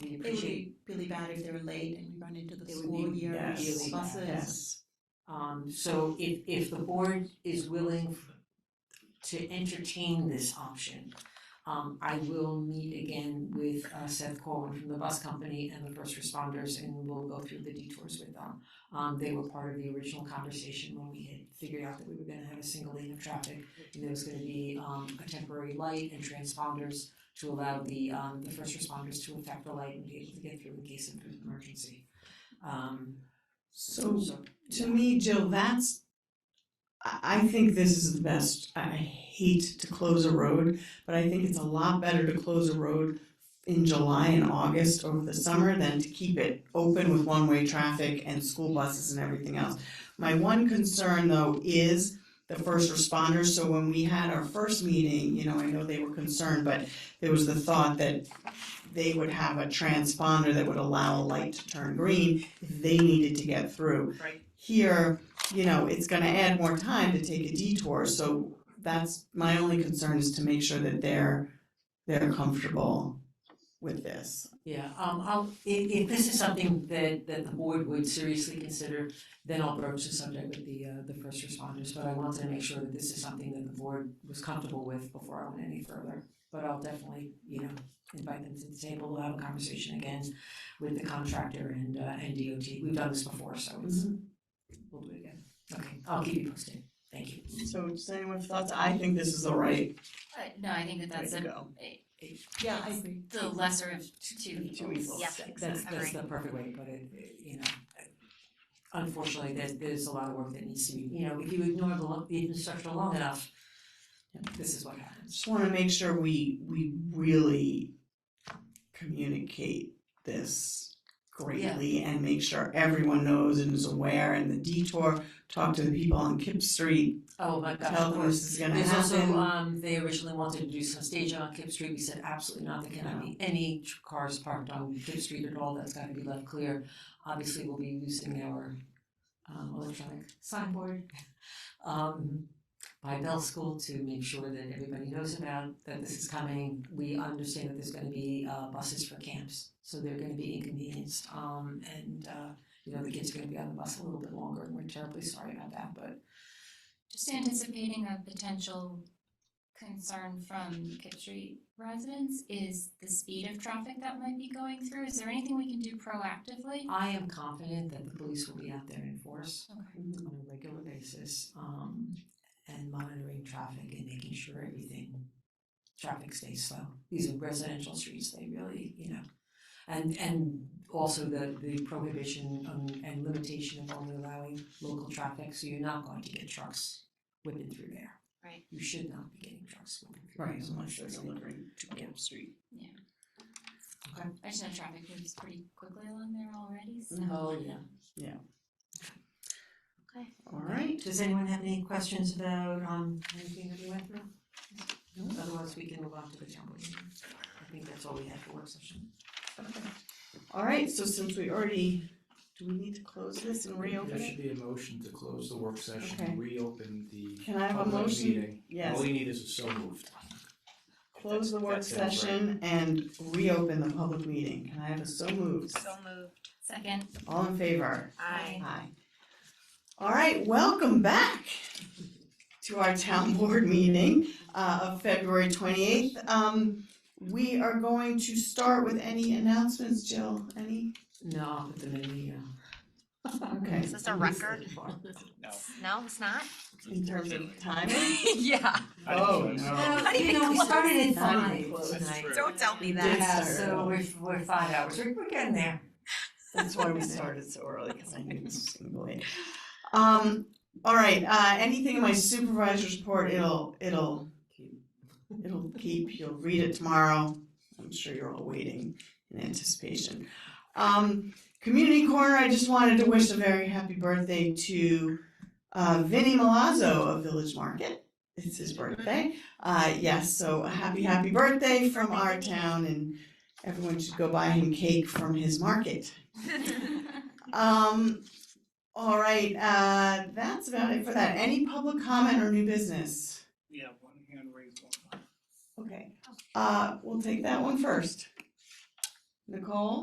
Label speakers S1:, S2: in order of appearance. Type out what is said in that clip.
S1: we
S2: It would
S1: appreciate,
S2: be really bad if they're late and we run into the
S1: It would
S2: school
S1: be
S2: year
S3: yes,
S2: buses.
S1: really bad, yes. um, so if, if the board is willing f- to entertain this option, um, I will meet again with uh, Seth Corwin from the bus company and the first responders, and we'll go through the detours with them. Um, they were part of the original conversation when we had figured out that we were gonna have a single lane of traffic, and there was gonna be, um, a temporary light and transponders to allow the, um, the first responders to affect the light and be able to get through in case of an emergency. Um,
S3: So
S1: so,
S3: to me, Jill, that's, I, I think this is the best, I hate to close a road, but I think it's a lot better to close a road in July and August over the summer than to keep it open with one-way traffic and school buses and everything else. My one concern though is the first responders, so when we had our first meeting, you know, I know they were concerned, but there was the thought that they would have a transponder that would allow a light to turn green if they needed to get through
S2: Right.
S3: here, you know, it's gonna add more time to take a detour, so that's, my only concern is to make sure that they're, they're comfortable with this.
S1: Yeah, um, I'll, if, if this is something that, that the board would seriously consider, then I'll broach the subject with the, uh, the first responders, but I wanted to make sure that this is something that the board was comfortable with before I went any further. But I'll definitely, you know, invite them to the table, we'll have a conversation again with the contractor and, uh, and DOT. We've done this before, so it's,
S3: Mm-hmm.
S1: we'll do it again. Okay, I'll keep you posted. Thank you.
S3: So does anyone have thoughts? I think this is the right
S4: Uh, no, I think that
S3: way
S4: that's
S3: to
S4: a,
S3: go.
S2: Yeah, I agree.
S4: the lesser of t- two evils.
S3: Two evils.
S4: Yeah,
S1: That's,
S4: agree.
S1: that's the perfect way to put it, you know. Unfortunately, there's, there's a lot of work that needs to be, you know, if you ignore the, lo- the infrastructure long enough, this is what happens.
S3: Just wanna make sure we, we really communicate this greatly and make sure everyone knows and is aware and the detour, talk to the people on Kip Street,
S1: Oh my gosh,
S3: tell
S1: of
S3: them
S1: course.
S3: this is gonna
S1: There's also,
S3: happen.
S1: um, they originally wanted to do some staging on Kip Street, we said absolutely not, there cannot be any tr- cars parked on Kip Street at all, that's gotta be left clear. Obviously, we'll be using our, um, electronic signboard, um, by Bell School to make sure that everybody knows about, that this is coming. We understand that there's gonna be, uh, buses for camps, so they're gonna be inconvenienced, um, and, uh, you know, the kids are gonna be on the bus a little bit longer, and we're terribly sorry about that, but
S4: Just anticipating a potential concern from Kip Street residents is the speed of traffic that might be going through. Is there anything we can do proactively?
S1: I am confident that the police will be out there in force
S4: Okay.
S1: on a regular basis, um, and monitoring traffic and making sure everything, traffic stays slow. These are residential streets, they really, you know, and, and also the, the prohibition on- and limitation of only allowing local traffic, so you're not going to get trucks whipping through there.
S4: Right.
S1: You should not be getting trucks whipping through.
S3: Right,
S1: there.
S3: unless they're delivering to Kip Street.
S4: I just know traffic moves pretty quickly along there already, so.
S1: Oh, yeah.
S3: All right.
S1: Does anyone have any questions about, um, anything that we went through? No, otherwise we can move on to the town board meeting. I think that's all we have for work session.
S3: All right, so since we already, do we need to close this and reopen
S5: There
S3: it?
S5: should be a motion to close the work session,
S3: Okay.
S5: and reopen the
S3: Can I have a
S5: public
S3: motion?
S5: meeting. All
S3: Yes,
S5: you need is a so moved.
S3: close the work
S5: That sounds right.
S3: session and reopen the public meeting. Can I have a so moved?
S6: moved.
S4: Second,
S3: All in favor?
S4: Aye.
S3: Aye. All right, welcome back to our town board meeting uh, of February twenty-eighth. Um, we are going to start with any announcements, Jill, any?
S1: No, I'll put them in the, uh. Oh.
S3: Okay,
S6: Is this a record? No, it's not?
S3: in terms of time?
S6: Yeah.
S3: Oh,
S1: Well,
S6: Not
S1: you
S6: even
S1: know, we
S6: close.
S1: started at
S3: Not
S1: five
S3: even close.
S1: tonight.
S6: Don't tell me that.
S1: Yeah,
S3: Yes, sir.
S1: so we're, we're five hours, we're, we're getting there.
S3: That's why we started so early, because I knew this was gonna go late. Um, all right, uh, anything in my supervisor's report, it'll, it'll, it'll keep, you'll read it tomorrow. I'm sure you're all waiting in anticipation. Um, Community Corner, I just wanted to wish a very happy birthday to, uh, Vinnie Malazzo of Village Market. It's his birthday. Uh, yes, so a happy, happy birthday from our town and everyone should go buy him cake from his market. Um, all right, uh, that's about it for that. Any public comment or new business?
S7: Yeah, one hand raised, one.
S3: Okay, uh, we'll take that one first. Nicole?